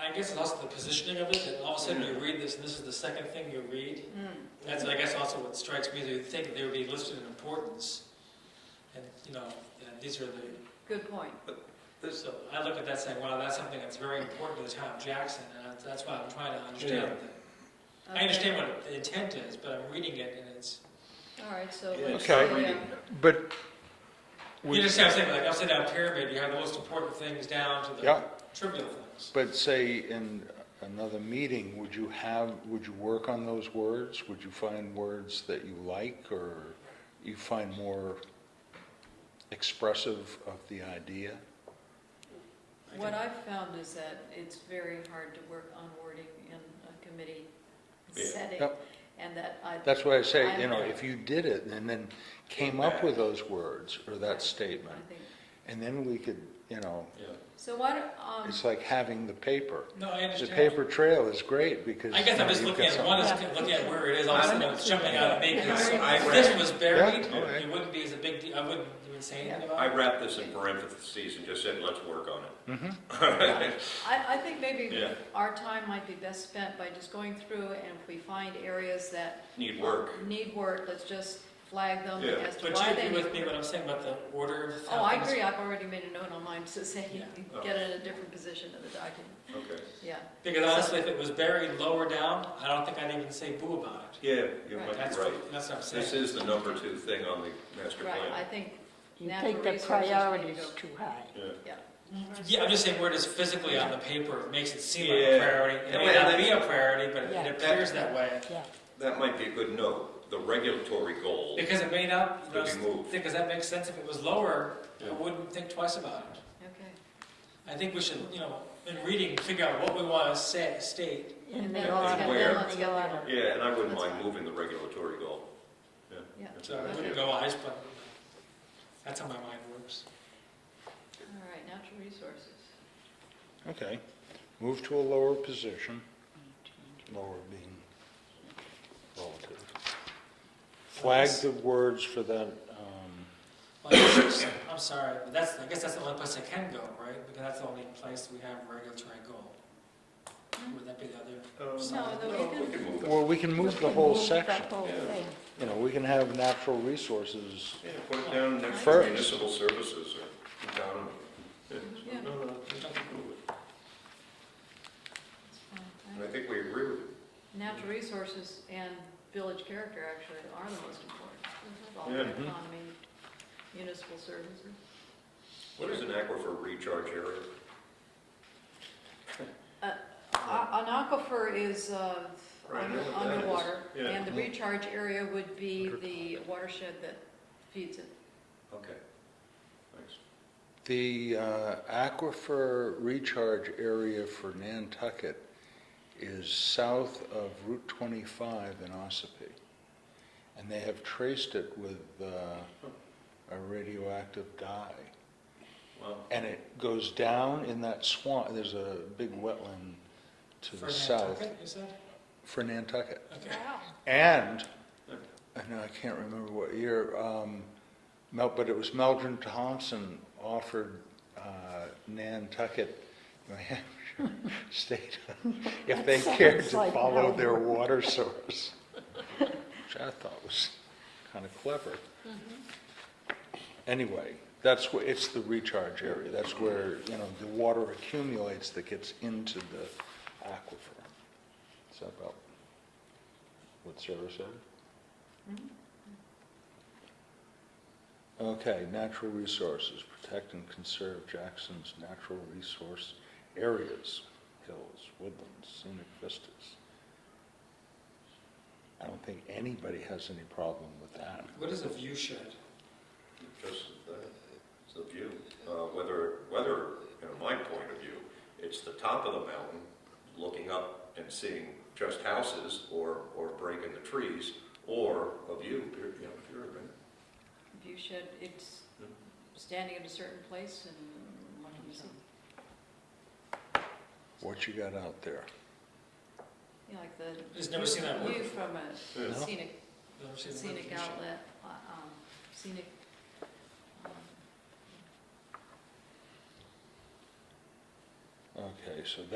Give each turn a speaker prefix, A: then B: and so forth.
A: I guess it's also the positioning of it, and all of a sudden you read this, and this is the second thing you read.
B: Mm.
A: That's, I guess, also what strikes me, you think they would be listed in importance. And, you know, and these are the,
B: Good point.
A: so I look at that saying, wow, that's something that's very important to the town of Jackson, and that's- that's why I'm trying to understand. I understand what the intent is, but I'm reading it, and it's,
B: All right, so.
C: Yeah,
B: let's-
D: okay.
B: yeah.
D: But
A: you
D: we,
A: just have something like upside down pyramid, you have the most important things down to the
D: Yeah.
A: trivial things.
D: but say in another meeting, would you have, would you work on those words? Would you find words that you like or you find more expressive of the idea?
B: What I've found is that it's very hard to work on wording in a committee
C: Yeah.
B: setting,
D: Yep.
B: and that I.
D: That's why I say, you
B: I'm-
D: know, if you did it and then came up with those words or that statement,
B: I think-
D: and then we could, you know,
C: Yeah.
B: So why, don't, um,
D: it's like having the paper.
A: No, I
D: The
A: understand.
D: paper trail is great because.
A: I guess I'm
D: you know,
A: just
D: you've
A: looking
D: got
A: at, one is
B: something.
A: looking at where it is, all of a sudden it's jumping out at me, because if this was buried,
D: Yeah, okay.
A: it wouldn't be as a big deal, I wouldn't even say anything
C: Oh, I
A: about it.
C: wrapped this in parentheses and just said, let's work on it. Mm-hmm.
B: I, I think maybe
C: Yeah.
B: our time might be best spent by just going through and if we find areas that
C: Need work.
B: need work, let's just flag them
C: Yeah.
B: as to
A: But you
B: why they
A: agree
B: need
A: with me what
B: work.
A: I'm saying about the order of
B: Oh, I
A: things?
B: agree, I've already made a note on mine to say,
A: Yeah.
B: get it in a different position of the document,
C: Okay.
B: yeah.
A: Because honestly, if it was buried lower down, I don't think I'd even say boo about it.
C: Yeah, you
B: Right.
C: might
A: That's,
C: be right.
A: that's what I'm saying.
C: This is the number two thing on the master
B: Right, I
C: plan.
B: think
E: You
B: natural
E: think the
B: resources need
E: priority's
B: to go.
E: too high.
C: Yeah.
B: Yeah.
A: Yeah, I'm just saying where it is physically on the paper, it makes it seem like
C: Yeah.
A: a priority. It may
C: Yeah.
A: not be a priority, but
E: Yeah.
A: it appears that way.
E: Yeah,
C: That might be a good note, the regulatory goal.
A: Because it may not, you
C: Could be
A: know,
C: moved.
A: because that makes sense, if it was lower, I
C: Yeah.
A: wouldn't think twice about it.
B: Okay,
A: I think we should, you know, in reading, figure out what we want to say, state.
E: in
B: And
E: the
B: then
C: let's
E: order,
C: get- Where?
E: in
B: let's
E: the
B: get
E: order.
B: there.
C: Yeah, and I wouldn't
B: That's
C: mind
B: fine.
C: moving the regulatory goal. Yeah.
B: Yeah.
A: So I wouldn't go eyes, but that's how my mind works.
B: all right, natural resources.
D: Okay, move to a lower position, lower being relative. Flag the words for that, um,
A: Well, I guess it's- I'm sorry, but that's, I guess that's the only place I can go, right? Because that's the only place we have a regulatory goal. Would that be the other?
B: Mm-hmm. No, the-
C: Well, We can move it.
D: well, we can move the whole section.
E: The whole
C: Yeah.
E: thing.
D: You know, we can have natural resources.
C: Yeah, put it down next to
D: First.
C: municipal services or down. yeah.
B: Yeah,
C: No, no, we can move it.
B: that's fine.
C: And I think we agree with it.
B: Natural resources and village character actually are the most important.
C: Yeah. mm-hmm.
B: Involving economy, municipal services.
C: What is an aquifer recharge area?
B: A- An aquifer is uh,
C: Right, I know what
B: under-
C: that is.
B: underwater,
C: Yeah. Mm-hmm.
B: and the recharge area would be the watershed that feeds it.
C: Okay. Thanks.
D: The uh, aquifer recharge area for Nantucket is south of Route 25 in Ossipee. And they have traced it with uh, a radioactive dye.
C: Well,
D: And it goes down in that swamp, there's a big wetland to
A: for
D: the south
A: Nantucket, You said?
D: for Nantucket.
A: Okay.
D: And, and I can't remember what year, um, Mel, but it was Meldrum Thompson offered, uh, Nantucket, New Hampshire State, if they
E: That
D: cared
E: sounds
D: to
E: like
D: follow their
E: Meldrum.
D: water source. Which I thought was kind of clever.
E: Mm-hmm.
D: Anyway, that's where, it's the recharge area. That's where, you know, the water accumulates that gets into the aquifer. Is that about what Sarah said? Okay, natural resources, protect and conserve Jackson's natural resource areas, hills, woodlands, scenic vistas. I don't think anybody has any problem with that.
A: What is a view shed?
C: Just the, uh, it's the view, Uh, whether, whether, you know, my point of view, it's the top of the mountain, looking up and seeing just houses or, or breaking the trees, or a view, you know, if you're in-
B: View shed, it's
C: Hmm.
B: standing in a certain place and one can see.
D: What you got out there?
B: Yeah, like the.
A: Just never seen that one.
B: View from a
C: Yeah.
D: No?
B: scenic,
A: Never seen the word
B: scenic
A: view shed.
B: outlet, uh, um, scenic. um,
D: Okay, so